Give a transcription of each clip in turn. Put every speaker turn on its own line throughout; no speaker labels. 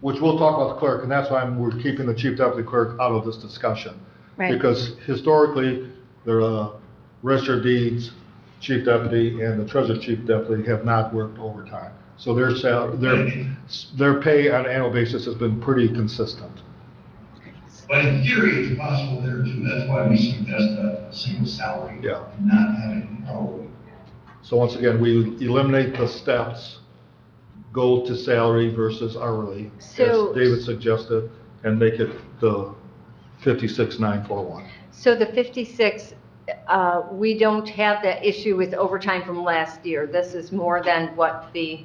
which we'll talk about the clerk, and that's why I'm- we're keeping the chief deputy clerk out of this discussion.
Right.
Because historically, the register of deeds chief deputy and the treasurer chief deputy have not worked overtime. So their sal, their, their pay on an annual basis has been pretty consistent.
But in theory, it's possible there too, that's why we suggest a single salary.
Yeah.
and Not having hourly.
So once again, we eliminate the steps, go to salary versus hourly, as
So-
David suggested, and make it the fifty-six nine four one.
So the 56, uh, we don't have that issue with overtime from last year. This is more than what the,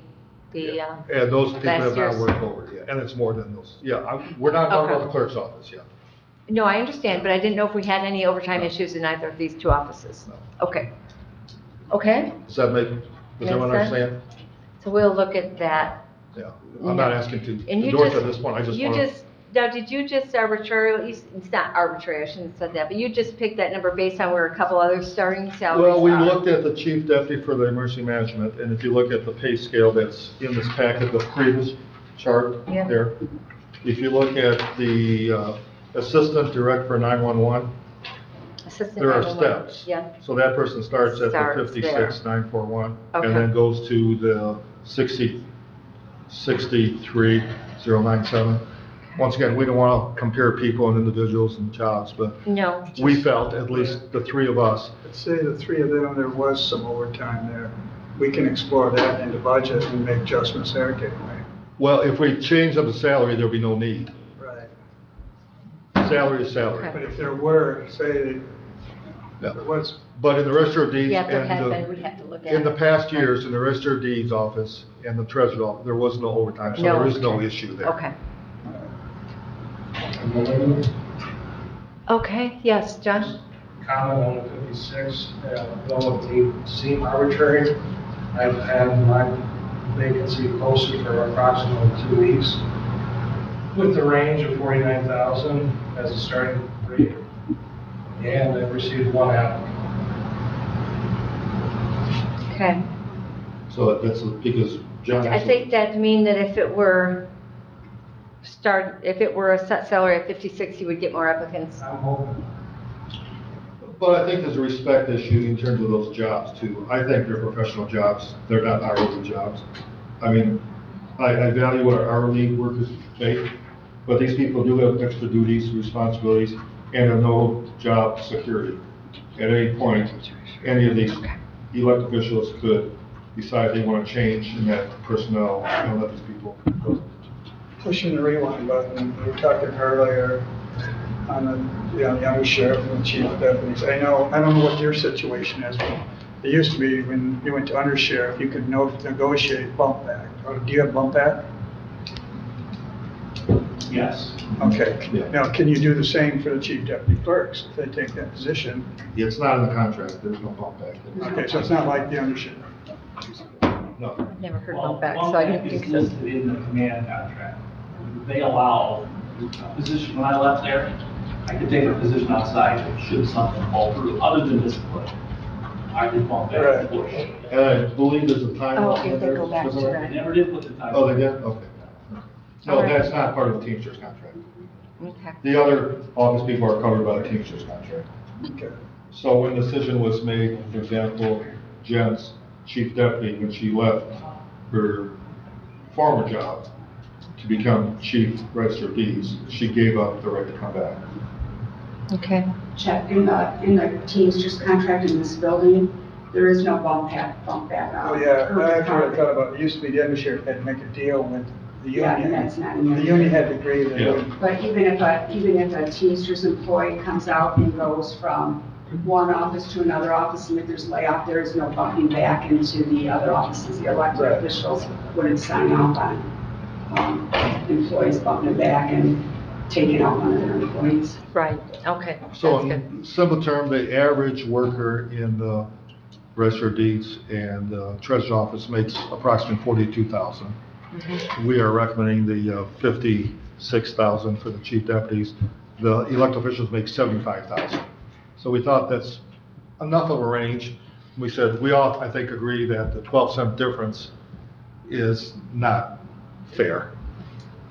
the, uh,
And those people have not
Last year's.
worked over yet, and it's more than those, yeah, I, we're not talking about
Okay.
the clerk's office yet.
no, I understand, but I didn't know if we had any overtime issues in either of these two offices.
No.
Okay. Okay,
Does that make, does
Makes
everyone
sense.
understand?
so we'll look at that.
Yeah, I'm not
No.
asking to
And you
endorse
just-
at this point, I just
You
want to.
just, now, did you just arbitrarily, it's not arbitrary, I shouldn't have said that, but you just picked that number based on where a couple other starting salaries
Well,
are?
we looked at the chief deputy for the emergency management, and if you look at the pay scale that's in this packet, the previous chart
Yeah.
there. If you look at the uh, assistant direct for 911,
Assistant
there are
911.
steps.
Yeah,
so that person starts at the
Starts there.
56, 941,
Okay.
and then goes to the 60, 63097. Once again, we don't want to compare people and individuals and jobs, but
no.
we felt, at least the three of us,
I'd say the three of them, there was some overtime there. We can explore that in the budget and make adjustments there, get away.
Well, if we change up the salary, there'd be no need.
Right.
Salary is salary.
Okay.
But if there were, say,
Yeah.
there was,
But in the register of deeds
Yeah, there has
and
been, we
the,
have to look at it.
in the past years, in the register of deeds office and the treasurer's office, there was no overtime, so
No
there is no
overtime.
issue there.
Okay. Okay, yes, Josh?
comment on the 56, uh, though it may seem arbitrary, I've had my vacancy posted for approximately two weeks with the range of 49,000 as a starting rate, and I've received one applicant.
Okay.
So that's because John.
I think that mean that if it were start, if it were a set salary of 56, you would get more applicants.
I'm hoping,
But I think there's a respect issue in terms of those jobs too. I think they're professional jobs, they're not hourly jobs. I mean, I, I value what our hourly workers make, but these people do have extra duties, responsibilities, and have no job security. At any point, any of these elected officials could decide they want to change in that personnel and let these people go.
pushing the rewind button, we were talking earlier on the, you know, young sheriff and the chief of deputies. I know, I don't know what your situation is, but it used to be when you went to undersheriff, you could no- negotiate bump back. Or do you have bump back?
yes.
Okay.
Yeah.
Now, can you do the same for the chief deputy clerks if they take that position?
It's not in the contract, there's no bump back.
Okay, so it's not like the undersheriff.
No.
I've never heard
Well,
of back,
one
so I
thing
didn't think
Is
so.
listed in the command contract. They allow a position, when I left there, I could take a position outside should something fall through, other than discipline. I did bump back
Right.
and forth. They
And I believe there's a time.
Oh,
limit
if they
there,
go back to
isn't there?
that.
never did put the time.
Oh, they did, okay. No,
All right.
that's not part of the Teamsters contract.
Okay.
The other office people are covered by the Teamsters contract.
Okay.
So when the decision was made, for example, Jen's chief deputy, when she left her former job to become chief register of deeds, she gave up the right to come back.
Okay.
check in the, in the Teamsters contract in this building, there is no bump back, bump back uh, out.
Oh, yeah,
per
that's what I
department.
thought about. It used to be the undersheriff had to make a deal with the
Yeah,
union.
that's not in there.
The union had to agree that
Yeah.
it would
But even if a, even if a Teamsters employee comes out and goes from one office to another office, and if there's layoff, there is no bumping back into the other offices. The elected
Right.
officials wouldn't sign off on, um, employees bumping back and taking out one of their employees.
Right, okay.
So
that's good.
in simple term, the average worker in the register of deeds and uh, treasurer's office makes approximately forty-two thousand.
Mm-hmm.
We are recommending the uh, fifty-six thousand for the chief deputies. The elected officials make seventy-five thousand. So we thought that's enough of a range. We said, we all, I think, agree that the twelve cent difference is not fair.